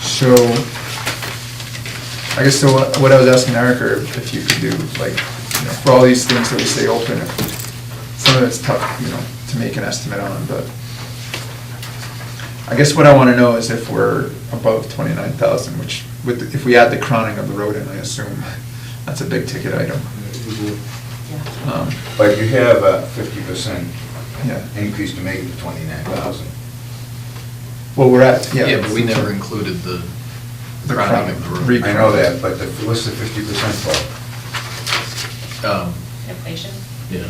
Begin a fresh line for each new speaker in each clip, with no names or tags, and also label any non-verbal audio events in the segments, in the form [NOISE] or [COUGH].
So, I guess so what what I was asking Eric, or if you could do, like, you know, for all these things that we stay open, if some of it's tough, you know, to make an estimate on, but I guess what I want to know is if we're above twenty-nine thousand, which, with, if we add the crowning of the road in, I assume, that's a big ticket item. Um,
But you have a fifty percent
Yeah,
increase to make it to twenty-nine thousand.
well, we're at, yeah.
Yeah, but we never included the
The
crowding of the
Re-
road.
I know that, but the- what's the fifty percent for?
Um,
Inflation?
Yeah.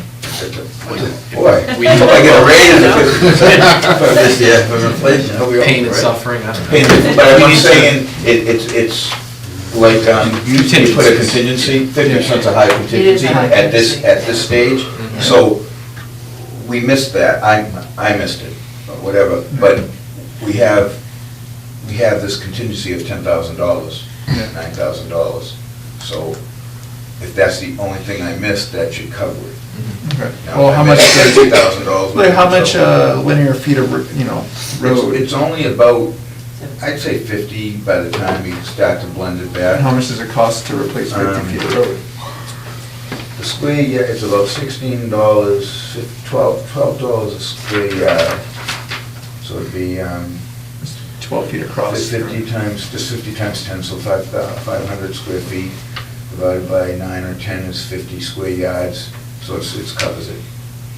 Boy,
We-
we get a
[LAUGHS]
raise of fifty percent [LAUGHS] for this year, for inflation. Hope we all-
Pain and
right?
suffering, I don't
Pain
know.
and- But
We
I'm
need to-
saying, it, it's, it's like, um, you you put a contingency, fifty percent's a high contingency
high
at this, at this stage,
contingency.
Mm-hmm.
so we missed that, I, I missed it, or whatever, but we have, we have this contingency of ten thousand dollars,
Yeah.
nine thousand dollars, so if that's the only thing I missed, that should cover it.
Okay.
Now,
Well,
if
how
I
much,
missed $30,000
like, how much
so-
uh, linear feet of, r- you know, road?
It's it's only about, I'd say fifty by the time you start to blend it back.
And how much does it cost to replace fifty
Um,
feet of road?
The square yard, it's about sixteen dollars, twelve, twelve dollars a square yard. So it'd be, um,
It's Twelve feet across.
fifty times, just fifty times ten, so five, uh, five hundred square feet divided by nine or ten is fifty square yards, so it's, it's covers it.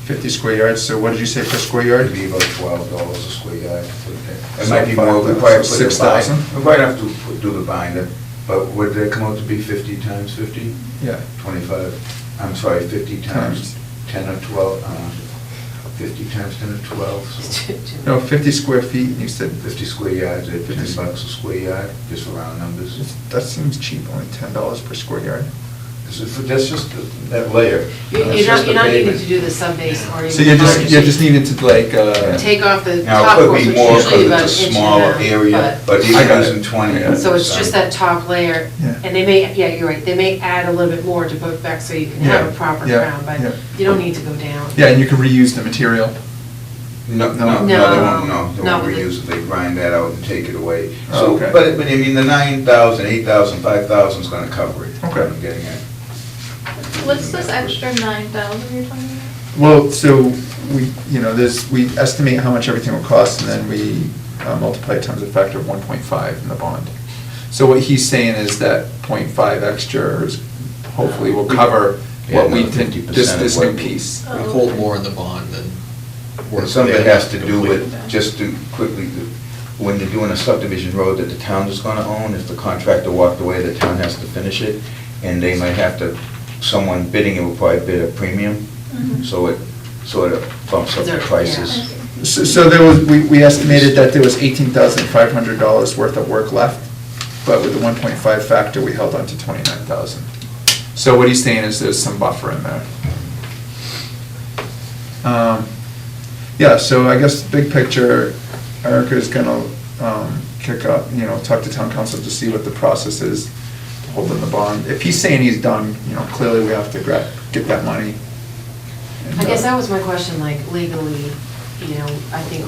Fifty square yards, so what did you say per square yard?
It'd be about twelve dollars a square yard. It
So
might be more, we
five-
probably put the
six
bind-
thousand?
We probably have to put- do the binder, but would that come out to be fifty times fifty?
Yeah.
Twenty-five, I'm sorry, fifty times
Times.
ten or twelve, uh, fifty times ten or twelve, so
No, [LAUGHS] fifty square feet, and you said,
fifty square yards at ten
50.
bucks a square yard, just for round numbers.
that seems cheap, only ten dollars per square yard.
This is- That's just the- that layer.
You're
That's
you're
just
not,
the
you're not needing
pavement.
to do the sub-base or even.
So you just,
concrete.
you just needed to like, uh,
Take off the
Now,
top
it
course,
could
which
be
is
more
usually
because
about
it's
an
a
inch
smaller
and a
area,
half,
but
I
even
got it.
using twenty. uh,
Yeah.
but, so it's just that top layer,
Yeah.
and they may, yeah, you're right, they may add a little bit more to book back so you can have
Yeah,
a proper
yeah,
crown, but
yeah.
you don't need to go down.
yeah, and you can reuse the material.
No,
No.
no, no, they won't, no, they
No,
won't
with the-
reuse it, they grind that out and take it away.
Oh,
So,
okay.
but, but I mean, the nine thousand, eight thousand, five thousand's gonna cover it.
Okay.
I'm getting it.
What's this extra nine thousand you're talking about?
Well, so we, you know, there's, we estimate how much everything will cost, and then we uh, multiply it times a factor of one point five in the bond. So what he's saying is that 0.5 extra is hopefully will cover
Yeah,
what we
another
did,
50%
this,
of
this
what
new
we-
piece.
We hold more in the bond than.
Or
we're-
Some of it has to do with,
Complete.
just to quickly, when you're doing a subdivision road that the town is gonna own, if the contractor walked away, the town has to finish it, and they might have to, someone bidding it will probably bid a premium,
Mm-hmm.
so it sort of bumps up the
There-
prices.
So, so there was, we, we estimated that there was eighteen thousand five hundred dollars worth of work left, but with the one point five factor, we held on to twenty-nine thousand. So what he's saying is there's some buffer in there. Um, Yeah, so I guess big picture, Erica's gonna, um, kick up, you know, talk to town council to see what the process is, holding the bond. If he's saying he's done, you know, clearly we have to grab, get that money. And,
I guess
uh,
that was my question, like legally, you know, I think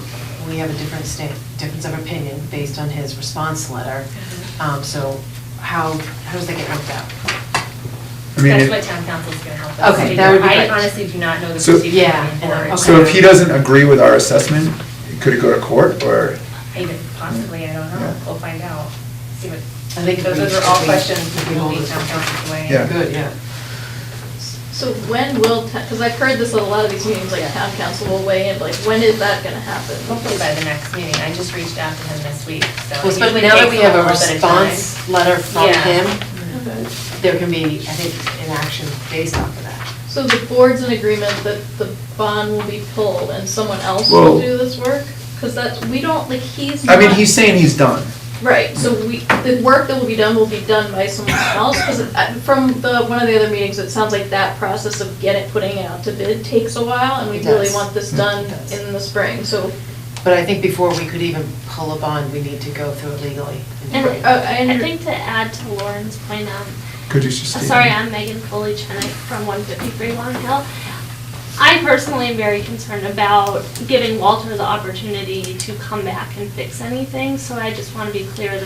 we have a different state, difference of opinion based on his response letter.
Mm-hmm.
Um, so how, how does that get worked out?
I mean,
That's
it-
what town council's gonna help us
Okay,
figure.
that would be
I
great.
honestly do not know the
So-
procedure
Yeah,
going forward.
okay.
So if he doesn't agree with our assessment, could it go to court, or?
Even possibly, I don't know,
Yeah.
we'll find out, see what,
I think if
those
we-
those are all
if we-
questions
if
that
we
will
hold
be
this
town
up.
council's way.
Yeah.
Good, yeah.
So when will, because I've heard this at a lot of these meetings, like town council will weigh in, like, when is that gonna happen?
Hopefully by the next meeting, I just reached out to him this week, so.
Well,
it usually
especially now that
takes
we have a
little bit of time.
response letter from
Yeah.
him,
Okay.
there can be, I think, an action based off of that.
So the board's in agreement that the bond will be pulled and someone else
Well-
will do this work? Because that's, we don't, like, he's
I mean,
not-
he's saying he's done.
Right, so we, the work that will be done will be done by someone else, because from the, one of the other meetings, it sounds like that process of getting, putting it out to bid takes a while, and we
It
really
does.
want this
Mm.
done
It does.
in the spring, so.
But I think before we could even pull a bond, we need to go through it legally.
And
Right.
uh, I
I
under-
think to add to Lauren's point, um,
Could you just?
uh,
state-
sorry, I'm Megan Foley Chenick from 153 Long Hill. I personally am very concerned about giving Walter the opportunity to come back and fix anything, so I just want to be clear that